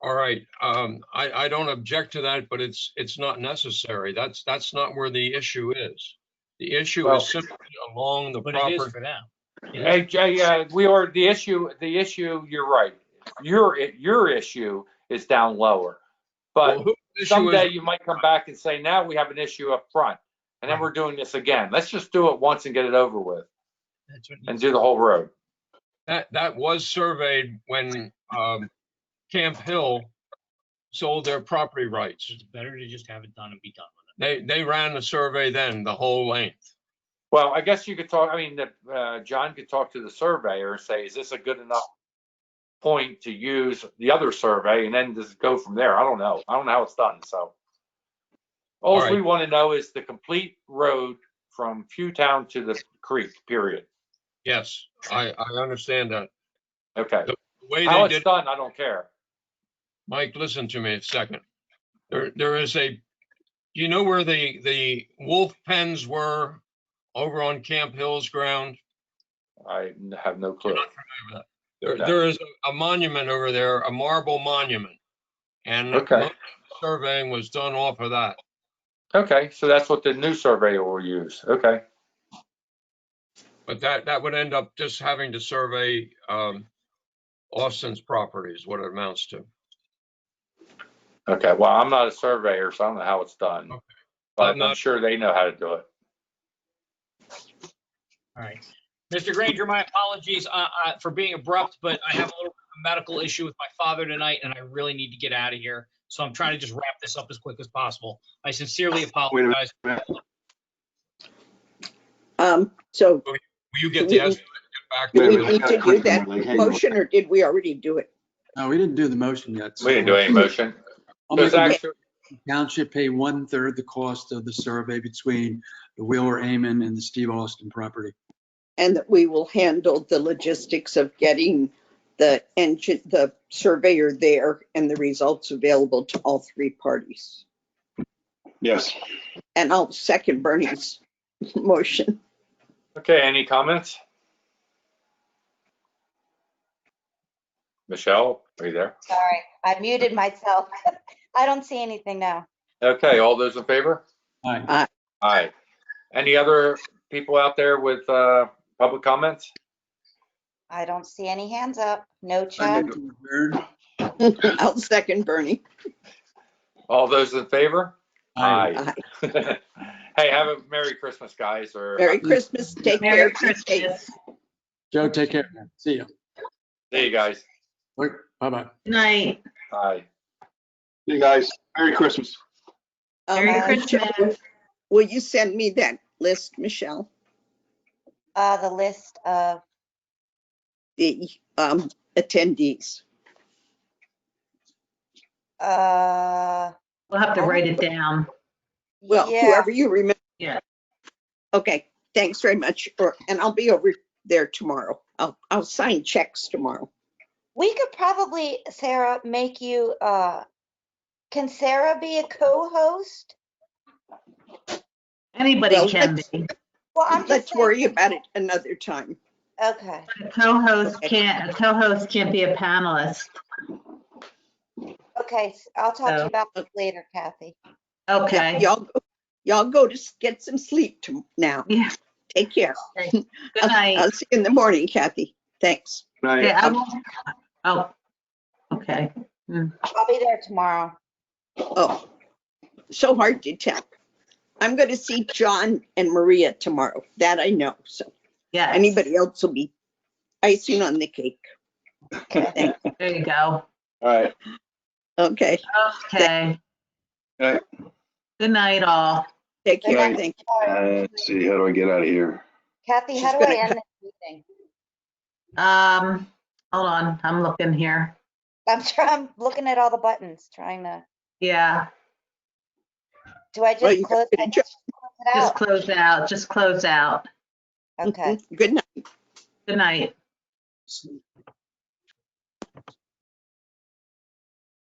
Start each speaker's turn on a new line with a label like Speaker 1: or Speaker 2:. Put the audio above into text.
Speaker 1: All right, um, I, I don't object to that, but it's, it's not necessary. That's, that's not where the issue is. The issue
Speaker 2: Well-
Speaker 1: is simply along the
Speaker 3: But it is
Speaker 1: proper,
Speaker 3: for them.
Speaker 2: Hey, Jay, uh, we are, the issue, the issue, you're right. Your, your issue is down lower.
Speaker 1: Well,
Speaker 2: But
Speaker 1: who the issue
Speaker 2: someday
Speaker 1: is,
Speaker 2: you might come back and say, now we have an issue up front. And then we're doing this again. Let's just do it once and get it over with
Speaker 3: That's what
Speaker 2: and do the whole road.
Speaker 1: that, that was surveyed when, um, Camp Hill sold their property rights.
Speaker 3: it's better to just have it done and be done
Speaker 1: They,
Speaker 3: with
Speaker 1: they ran the survey then, the whole length.
Speaker 2: Well, I guess you could talk, I mean, the, uh, John could talk to the surveyor and say, is this a good enough point to use the other survey and then just go from there? I don't know. I don't know how it's done, so.
Speaker 1: All
Speaker 2: All
Speaker 1: right.
Speaker 2: we want to know is the complete road from Pewtown to the creek, period.
Speaker 1: Yes, I, I understand that.
Speaker 2: Okay.
Speaker 1: The way
Speaker 2: How
Speaker 1: they
Speaker 2: it's
Speaker 1: did,
Speaker 2: done, I don't care.
Speaker 1: Mike, listen to me a second. There, there is a, you know where the, the wolf pens were over on Camp Hill's ground?
Speaker 2: I have no clue.
Speaker 1: There,
Speaker 2: No.
Speaker 1: there is a monument over there, a marble monument. And
Speaker 2: Okay.
Speaker 1: most of the surveying was done off of that.
Speaker 2: Okay, so that's what the new surveyor will use. Okay.
Speaker 1: But that, that would end up just having to survey, um, Austin's property is what it amounts to.
Speaker 2: Okay, well, I'm not a surveyor, so I don't know how it's done.
Speaker 1: Okay.
Speaker 2: But
Speaker 1: I'm
Speaker 2: I'm
Speaker 1: not-
Speaker 2: sure they know how to do it.
Speaker 3: it. All right. Mr. Granger, my apologies uh, uh, for being abrupt, but I have a little medical issue with my father tonight and I really need to get out of here. So I'm trying to just wrap this up as quick as possible. I sincerely
Speaker 4: minute.
Speaker 3: apologize.
Speaker 5: Um, so
Speaker 1: Will you get
Speaker 5: We-
Speaker 1: the estimate? Get back
Speaker 5: do
Speaker 4: Wait a
Speaker 5: we
Speaker 1: to
Speaker 4: minute, I
Speaker 1: me.
Speaker 5: need
Speaker 4: gotta
Speaker 5: to do
Speaker 4: click
Speaker 5: that
Speaker 4: on it, like, hey,
Speaker 5: motion or did we already do it?
Speaker 4: No, we didn't do the motion yet. so-
Speaker 2: We didn't do any motion.
Speaker 4: I'll make
Speaker 2: There's
Speaker 4: a motion
Speaker 2: actually,
Speaker 4: the Township pay one-third the cost of the survey between the Wheeler Amen and the Steve Austin property.
Speaker 5: And that we will handle the logistics of getting the engine, the surveyor there and the results available to all three parties.
Speaker 4: Yes.
Speaker 5: And I'll second Bernie's motion.
Speaker 2: okay, any comments? Michelle, are you there?
Speaker 6: Sorry, I muted myself. I don't see anything now.
Speaker 2: Okay, all those in favor?
Speaker 4: Aye.
Speaker 2: Aye. Any other people out there with uh, public comments?
Speaker 6: I don't see any hands up. No
Speaker 4: I
Speaker 6: chat.
Speaker 4: make a third.
Speaker 5: I'll second Bernie.
Speaker 2: All those in favor?
Speaker 4: Aye.
Speaker 5: Aye.
Speaker 2: Hey, have a Merry Christmas, guys, or
Speaker 5: Merry Christmas. Take care.
Speaker 7: Merry
Speaker 5: be safe.
Speaker 7: Christmas.
Speaker 4: Joe, take care. man. See you.
Speaker 2: see you guys.
Speaker 4: Bye-bye.
Speaker 7: Night.
Speaker 2: Aye.
Speaker 4: See you guys. Merry Christmas.
Speaker 5: Um,
Speaker 7: Merry
Speaker 6: uh,
Speaker 7: Christmas.
Speaker 5: Will you send me that list, Michelle?
Speaker 6: Uh, the list of,
Speaker 5: The, um, attendees.
Speaker 6: uh,
Speaker 7: We'll have to write it down.
Speaker 5: Well,
Speaker 6: yeah,
Speaker 5: whoever you remember.
Speaker 7: Yeah.
Speaker 5: Okay, thanks very much. or- And I'll be over there tomorrow. I'll, I'll sign checks tomorrow.
Speaker 6: we could probably, Sarah, make you, uh, can Sarah be a co-host?
Speaker 7: Anybody
Speaker 5: Well,
Speaker 7: can
Speaker 5: let's-
Speaker 7: be.
Speaker 6: Well, I'm just
Speaker 5: Let's worry
Speaker 6: saying,
Speaker 5: about it another time.
Speaker 6: okay,
Speaker 7: A co-host can't, a co-host can't be a panelist.
Speaker 6: okay. s- I'll talk to you
Speaker 7: So-
Speaker 6: about this later, Kathy.
Speaker 7: Okay.
Speaker 5: Y'all, go- y'all go to s- get some sleep to- now.
Speaker 7: Yeah.
Speaker 5: Take care.
Speaker 7: Good night.
Speaker 5: I'll see you in the morning, Kathy. Thanks.
Speaker 7: Yeah, I won't- Oh, okay.
Speaker 6: I'll be there tomorrow.
Speaker 5: Oh, so hard to tell. I'm going to see John and Maria tomorrow. That I know. So
Speaker 7: Yes.
Speaker 5: anybody else will be icing on the cake.
Speaker 7: There you go.
Speaker 4: All right.
Speaker 5: Okay,
Speaker 7: Okay.
Speaker 4: Right.
Speaker 7: Good night, all.
Speaker 5: take care.
Speaker 6: Right.
Speaker 5: Thank you.
Speaker 6: All right.
Speaker 4: Uh, see, how do I get out of here?
Speaker 6: Kathy, how
Speaker 5: She's
Speaker 6: do I
Speaker 5: gonna
Speaker 6: end this meeting?
Speaker 7: Um, hold on, I'm looking here.
Speaker 6: I'm trying, I'm looking at all the buttons, trying to,
Speaker 7: Yeah,
Speaker 6: do I
Speaker 5: Well,
Speaker 6: just
Speaker 5: you
Speaker 6: close
Speaker 5: can
Speaker 6: I
Speaker 5: adjourn.
Speaker 6: just close it
Speaker 7: just
Speaker 6: out?
Speaker 7: close out, just close out.
Speaker 6: Okay.
Speaker 5: Good night.
Speaker 7: Good night.